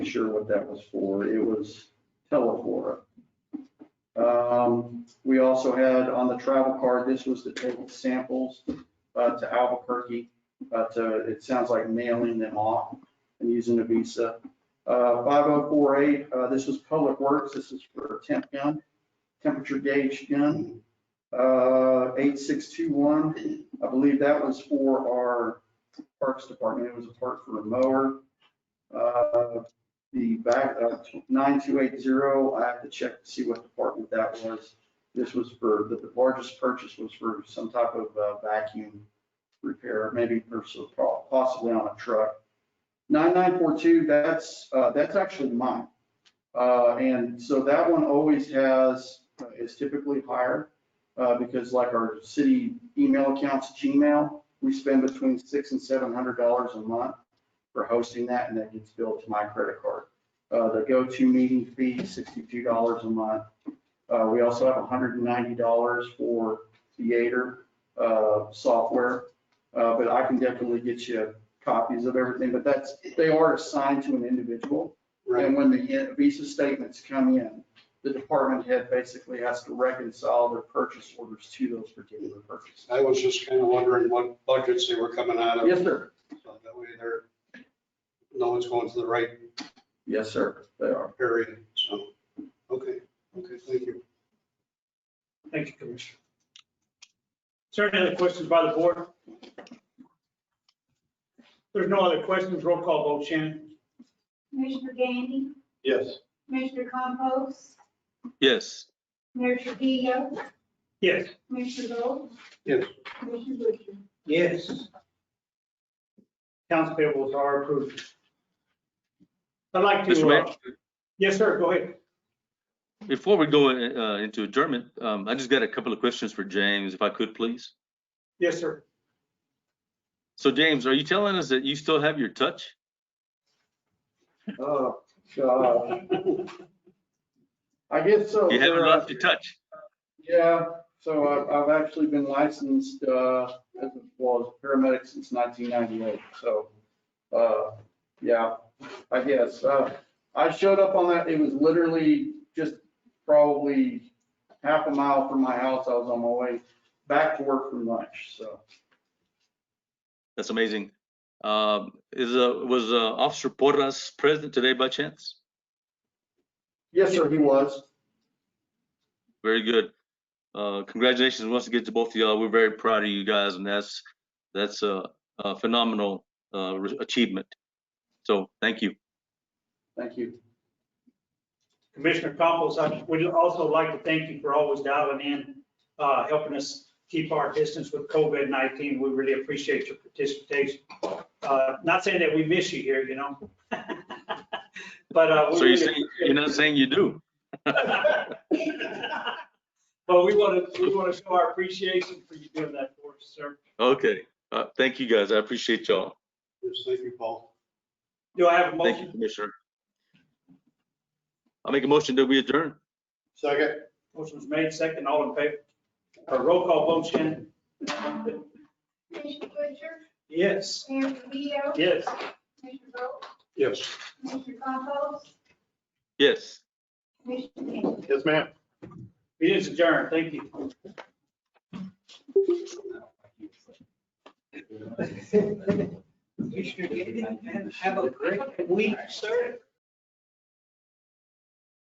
sure what that was for. It was Teleflora. Um, we also had on the travel card, this was to take samples, uh, to Albuquerque, uh, to, it sounds like mailing them off and using a visa. Uh, five oh four eight, uh, this was Public Works, this is for a temp gun, temperature gauge gun. Uh, eight six two one, I believe that was for our Parks Department, it was a part for a mower. Uh, the back, uh, nine two eight zero, I have to check to see what department that was. This was for, the the largest purchase was for some type of uh, vacuum repair, maybe for so- possibly on a truck. Nine nine four two, that's, uh, that's actually mine. Uh, and so that one always has, uh, is typically higher, uh, because like our city email accounts, Gmail, we spend between six and seven hundred dollars a month for hosting that, and that gets billed to my credit card. Uh, the go-to meeting fee, sixty-two dollars a month. Uh, we also have hundred and ninety dollars for theater, uh, software. Uh, but I can definitely get you copies of everything, but that's, they are assigned to an individual. And when the visa statements come in, the department head basically has to reconcile their purchase orders to those particular purchases. I was just kind of wondering what budgets they were coming out of. Yes, sir. So That way they're, no one's going to the right Yes, sir, they are. area, so, okay, okay, thank you. Thank you, Commissioner. Is there any other questions by the board? There's no other questions, roll call vote, Shannon. Commissioner Gandy, Yes. Commissioner Compost, Yes, Mayor Trujillo, Yes. Commissioner Bolt. Yes. Commissioner Butcher. Yes. Accounts payables are approved. I'd like Mr. to, Mayor, uh, yes, sir, go ahead. before we go in- uh, into adjournment, um, I just got a couple of questions for James, if I could, please. Yes, sir. So James, are you telling us that you still have your touch? Oh, God. I guess so. You haven't sir. lost your touch? Yeah, so I've, I've actually been licensed, uh, as a, well, as a paramedic since nineteen ninety-eight, so, uh, yeah, I guess. Uh, I showed up on that, it was literally just probably half a mile from my house. I was on my way back to work from lunch, so. That's amazing. Um, Is, uh, was uh, Officer Porras present today by chance? Yes, sir, he was. Very good. Uh, Congratulations once again to both of y'all. We're very proud of you guys and that's, that's a a phenomenal uh, re- achievement. So thank you. Thank you. Commissioner Compost, I would also like to thank you for always dialing in, uh, helping us keep our distance with COVID-19. We really appreciate your participation. Uh, Not saying that we miss you here, you know? But. uh, we So you're really saying, you're not saying you do? But we want to, we want to show our appreciation for you doing that for us, sir. Okay, Uh, thank you guys. I appreciate y'all. Yes, thank you, Paul. Do I have a Thank you, motion? Commissioner. I'll make a motion that we adjourn. Second. Motion was made, second, all in favor? Or roll call vote, Shannon? Commissioner Butcher, Yes. Mayor Trujillo, Yes. Commissioner Bolt, Yes. Commissioner Compost, Yes. Commissioner Gandy. Yes, ma'am. It is adjourned. Thank you. Commissioner Gaten, have a great week, sir.